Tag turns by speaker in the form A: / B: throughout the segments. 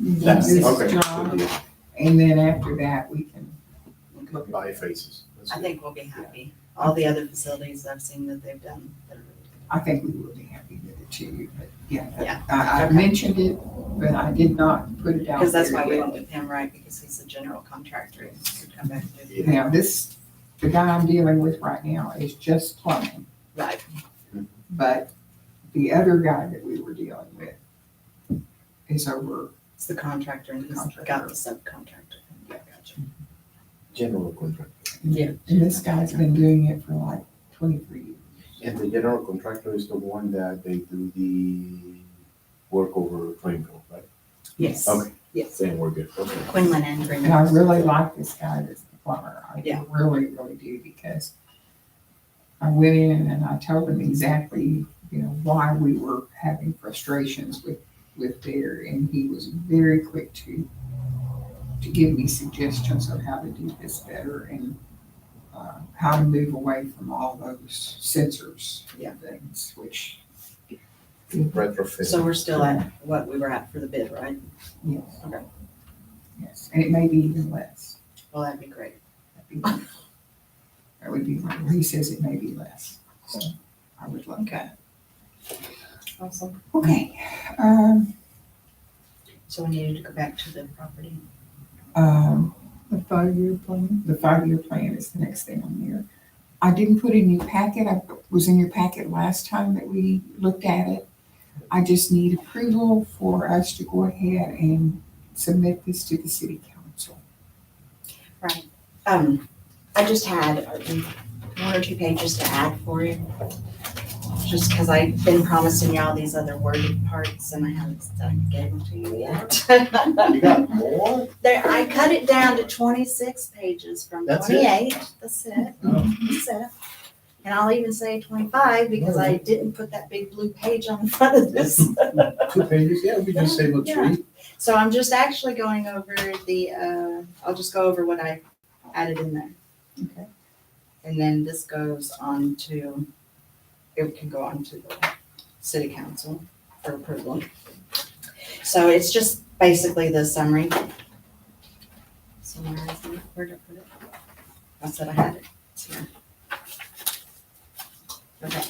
A: That's,
B: This is
A: okay.
B: drawn.
A: Good deal.
B: And then after that, we can look at
A: By faces. That's
C: I
A: good.
C: think we'll be happy. All the other facilities I've seen that they've done. that are really good.
B: I think we would be happy with it too, but yeah,
C: Yeah.
B: I, I
C: Okay.
B: mentioned it, but I did not put it out.
C: Because that's
B: there
C: why we
B: yet.
C: went with him, right? Because he's a general contractor. and he could come back and do that.
A: Yeah.
B: Now, this, the guy I'm dealing with right now is just plumbing,
C: Right.
B: but the other guy that we were dealing with is over,
C: It's the contractor and he's got the subcontractor. Yeah, gotcha.
A: General contractor.
C: Yeah.
B: and this guy's been doing it for like twenty-three years.
A: And the general contractor is the one that they do the work over Greenville, right?
C: Yes.
A: Okay.
C: Yes.
A: Then we're good, okay.
C: Quinlan and
B: And I
C: Green.
B: really like this guy that's the plumber. I
C: Yeah.
B: really, really do because I went in and I told him exactly, you know, why we were having frustrations with, with there. And he was very quick to, to give me suggestions of how to do this better and uh, how to move away from all those sensors
C: Yeah.
B: and things, which,
A: Retrofit.
C: So we're still at what we were at for the bid, right?
B: yes.
C: Okay.
B: Yes, and it may be even less.
C: Well, that'd be great.
B: That'd be wonderful. That would be, wonderful. he says it may be less, so I would love that.
C: Awesome.
B: Okay, um,
C: So we needed to go back to the property.
B: um, the five-year plan, the five-year plan is the next thing on there. I didn't put in your packet, I was in your packet last time that we looked at it. I just need approval for us to go ahead and submit this to the city council.
C: Um, I just had one or two pages to add for you. Just because I've been promising y'all these other worded parts and I haven't done- gave them to you yet.
A: You got more?
C: There, I cut it down to twenty-six pages from
A: That's it?
C: twenty-eight, that's it,
A: Oh.
C: that's it. And I'll even say twenty-five because I didn't put that big blue page on the front of this.
A: Two pages, yeah, we just say, look,
C: Yeah.
A: three.
C: So I'm just actually going over the, uh, I'll just go over what I added in there.
B: Okay.
C: And then this goes on to, it can go on to the city council for approval. So it's just basically the summary. Summary, where did I put it? I said I had it. It's here. Okay.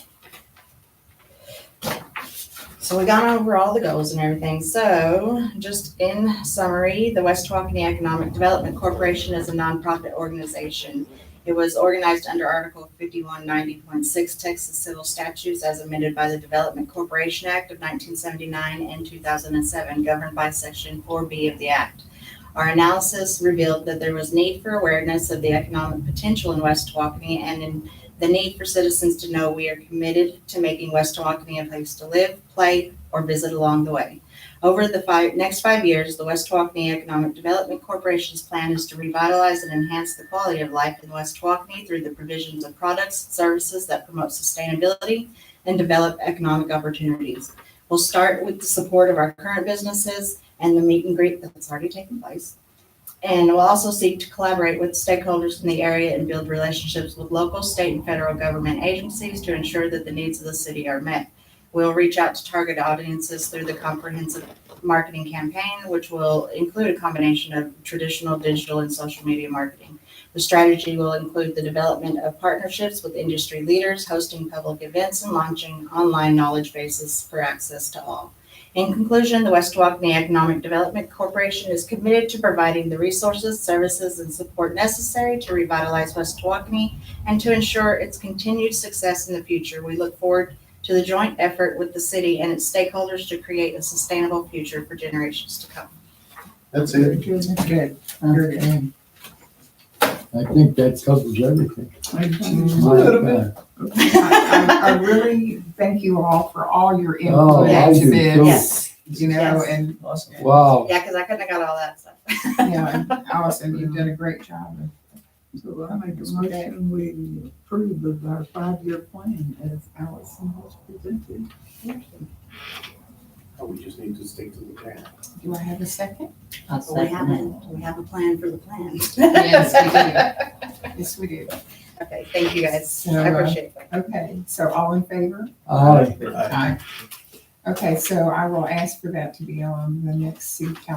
C: So we gone over all the goals and everything. So just in summary, the West Waukene Economic Development Corporation is a nonprofit organization. It was organized under Article fifty-one ninety point six Texas Civil Statutes as amended by the Development Corporation Act of nineteen seventy-nine and two thousand and seven, governed by Section four B of the act. Our analysis revealed that there was need for awareness of the economic potential in West Waukene and in the need for citizens to know we are committed to making West Waukene a place to live, play, or visit along the way. Over the five, next five years, the West Waukene Economic Development Corporation's plan is to revitalize and enhance the quality of life in West Waukene through the provisions of products and services that promote sustainability and develop economic opportunities. We'll start with the support of our current businesses and the meet and greet that's already taken place. And will also seek to collaborate with stakeholders in the area and build relationships with local, state, and federal government agencies to ensure that the needs of the city are met. We'll reach out to target audiences through the comprehensive marketing campaign, which will include a combination of traditional, digital, and social media marketing. The strategy will include the development of partnerships with industry leaders, hosting public events, and launching online knowledge bases for access to all. In conclusion, the West Waukene Economic Development Corporation is committed to providing the resources, services, and support necessary to revitalize West Waukene and to ensure its continued success in the future. We look forward to the joint effort with the city and its stakeholders to create a sustainable future for generations to come.
A: That's
B: Very
A: it.
B: Good, good, very good.
D: I think that covers everything.
B: I, I I really thank you all for all your
D: Oh,
B: input
C: I
B: to
D: do too.
B: this,
C: Yes,
B: you know,
C: Yes.
B: and,
D: Wow,
C: yeah, because I couldn't have got all that stuff.
B: yeah, and Allison, you've done a great job.
E: So I make a motion, we approve of our five-year plan as Allison has presented.
A: Oh, We just need to stick to the plan.
B: Do I have a second?
C: But We haven't, we have a plan for the plan.
B: Yes, we do. Yes, we do.
C: Okay, thank you guys.
B: So, uh,
C: I appreciate it.
B: Okay, so all in favor?
D: aye.
A: Aye.
B: Aye. Okay, so I will ask for that to be on the next city council